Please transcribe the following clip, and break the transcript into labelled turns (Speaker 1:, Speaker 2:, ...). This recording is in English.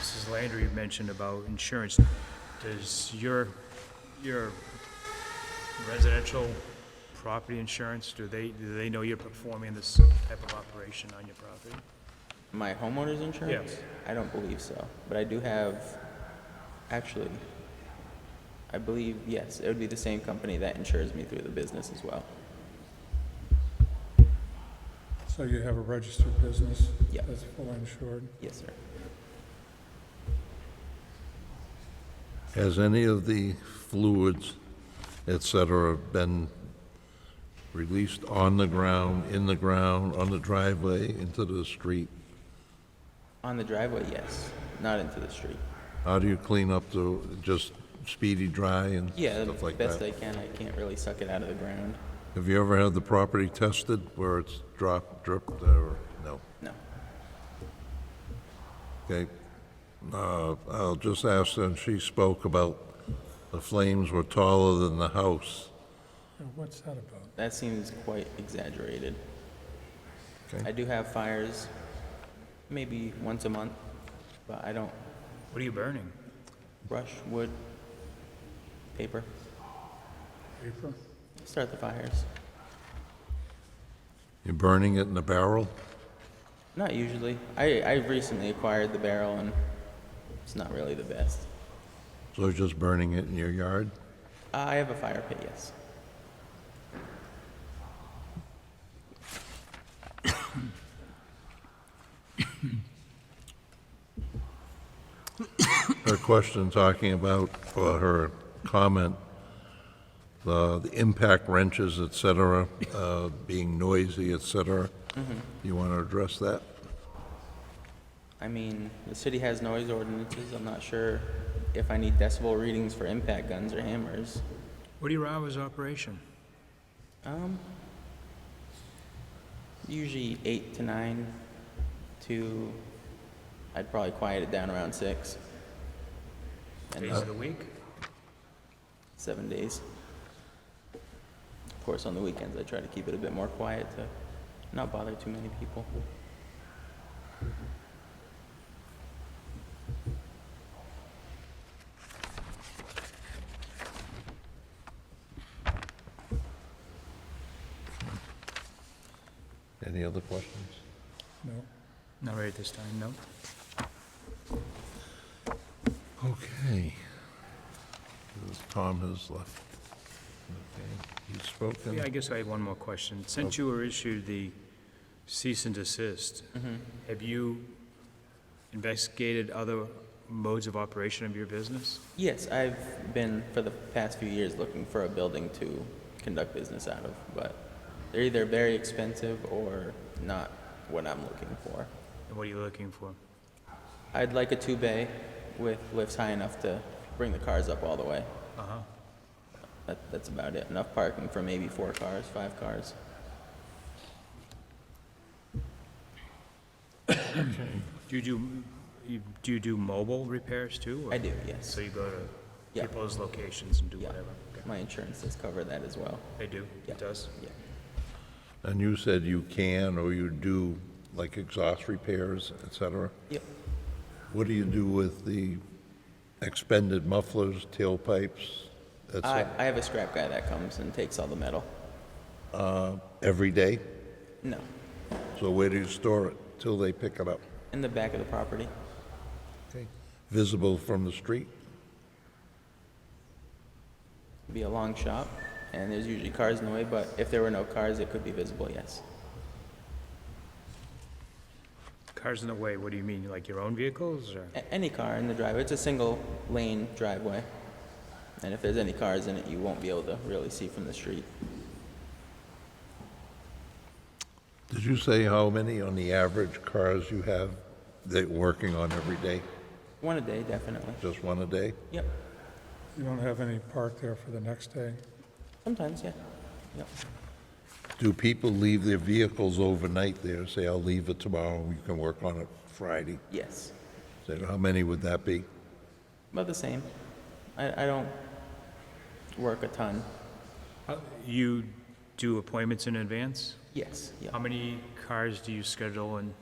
Speaker 1: Mrs. Landry mentioned about insurance, does your, your residential property insurance, do they, do they know you're performing this type of operation on your property?
Speaker 2: My homeowner's insurance?
Speaker 1: Yes.
Speaker 2: I don't believe so, but I do have, actually, I believe, yes, it would be the same company that insures me through the business as well.
Speaker 3: So you have a registered business?
Speaker 2: Yep.
Speaker 3: That's fully insured?
Speaker 2: Yes, sir.
Speaker 4: Has any of the fluids, et cetera, been released on the ground, in the ground, on the driveway, into the street?
Speaker 2: On the driveway, yes, not into the street.
Speaker 4: How do you clean up the, just speedy dry and
Speaker 2: Yeah,
Speaker 4: stuff like
Speaker 2: best I
Speaker 4: that?
Speaker 2: can, I can't really suck it out of the ground.
Speaker 4: Have you ever had the property tested where it's dropped, dripped, or, no?
Speaker 2: No.
Speaker 4: Okay. Uh, I'll just ask, and she spoke about the flames were taller than the house.
Speaker 3: Yeah, What's that about?
Speaker 2: That seems quite exaggerated.
Speaker 4: Okay.
Speaker 2: I do have fires, maybe once a month, but I don't
Speaker 1: What are you burning?
Speaker 2: brush, wood, paper,
Speaker 3: Paper?
Speaker 2: start the fires.
Speaker 4: You're burning it in a barrel?
Speaker 2: Not usually. I, I recently acquired the barrel and it's not really the best.
Speaker 4: So you're just burning it in your yard?
Speaker 2: Uh, I have a fire pit, yes.
Speaker 4: her question talking about, or her comment, the the impact wrenches, et cetera, uh, being noisy, et cetera. You want to address that?
Speaker 2: I mean, the city has noise ordinances. I'm not sure if I need decibel readings for impact guns or hammers.
Speaker 1: What are your hours of operation?
Speaker 2: Um, usually eight to nine to, I'd probably quiet it down around six. And
Speaker 1: Days of the week?
Speaker 2: seven days. Of course, on the weekends, I try to keep it a bit more quiet to not bother too many people.
Speaker 4: Any other questions?
Speaker 3: No.
Speaker 1: Not right at this time, no?
Speaker 4: Okay. Tom has left. Okay, He's spoken.
Speaker 1: Yeah, I guess I have one more question. Since you were issued the cease and desist, have you investigated other modes of operation of your business?
Speaker 2: Yes, I've been for the past few years looking for a building to conduct business out of, but they're either very expensive or not what I'm looking for.
Speaker 1: And what are you looking for?
Speaker 2: I'd like a two bay with lifts high enough to bring the cars up all the way.
Speaker 1: Uh-huh.
Speaker 2: That, that's about it. Enough parking for maybe four cars, five cars.
Speaker 1: Do you do, you- do you do mobile repairs too? or-
Speaker 2: I do, yes.
Speaker 1: So you go to
Speaker 2: Yeah.
Speaker 1: people's locations and do
Speaker 2: Yeah.
Speaker 1: whatever? Okay.
Speaker 2: My insurance does cover that as well.
Speaker 1: They do?
Speaker 2: Yeah.
Speaker 1: It does?
Speaker 2: Yeah.
Speaker 4: And you said you can or you do, like exhaust repairs, et cetera?
Speaker 2: Yep.
Speaker 4: What do you do with the expended mufflers, tailpipes, et
Speaker 2: I,
Speaker 4: cetera?
Speaker 2: I have a scrap guy that comes and takes all the metal.
Speaker 4: Every day?
Speaker 2: No.
Speaker 4: So where do you store it till they pick it up?
Speaker 2: In the back of the property.
Speaker 4: Okay. Visible from the street?
Speaker 2: It'd be a long shop, and there's usually cars in the way, but if there were no cars, it could be visible, yes.
Speaker 1: Cars in the way, what do you mean, like your own vehicles or?
Speaker 2: A- any car in the driveway. It's a single lane driveway. And if there's any cars in it, you won't be able to really see from the street.
Speaker 4: Did you say how many on the average cars you have that you're working on every day?
Speaker 2: One a day, definitely.
Speaker 4: Just one a day?
Speaker 2: Yep.
Speaker 3: You don't have any park there for the next day?
Speaker 2: Sometimes, yeah. Yep.
Speaker 4: Do people leave their vehicles overnight there, say, I'll leave it tomorrow, you can work on it Friday?
Speaker 2: Yes.
Speaker 4: Say, how many would that be?
Speaker 2: About the same. I, I don't work a ton. Uh,
Speaker 1: How- You do appointments in advance?
Speaker 2: Yes.
Speaker 1: How
Speaker 2: Yep.
Speaker 1: many cars do you schedule in